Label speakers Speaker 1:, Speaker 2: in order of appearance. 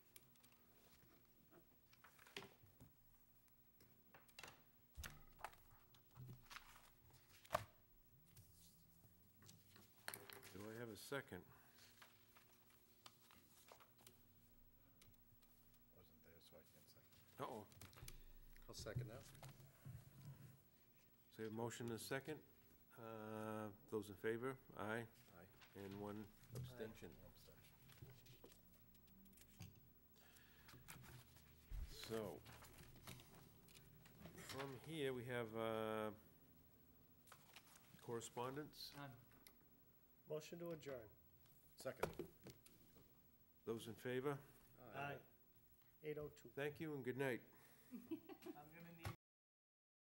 Speaker 1: second.
Speaker 2: Wasn't there, so I can't second.
Speaker 1: Uh-oh.
Speaker 3: I'll second that.
Speaker 1: So we have motion and a second. Uh, Those in favor? Aye.
Speaker 2: Aye.
Speaker 1: And one abstention.
Speaker 2: Abstention.
Speaker 1: So, from here, we have uh, correspondence.
Speaker 4: None.
Speaker 5: Motion to adjourn.
Speaker 2: Second.
Speaker 1: Those in favor?
Speaker 5: Aye. 8:02.
Speaker 1: Thank you and good night.
Speaker 4: I'm gonna need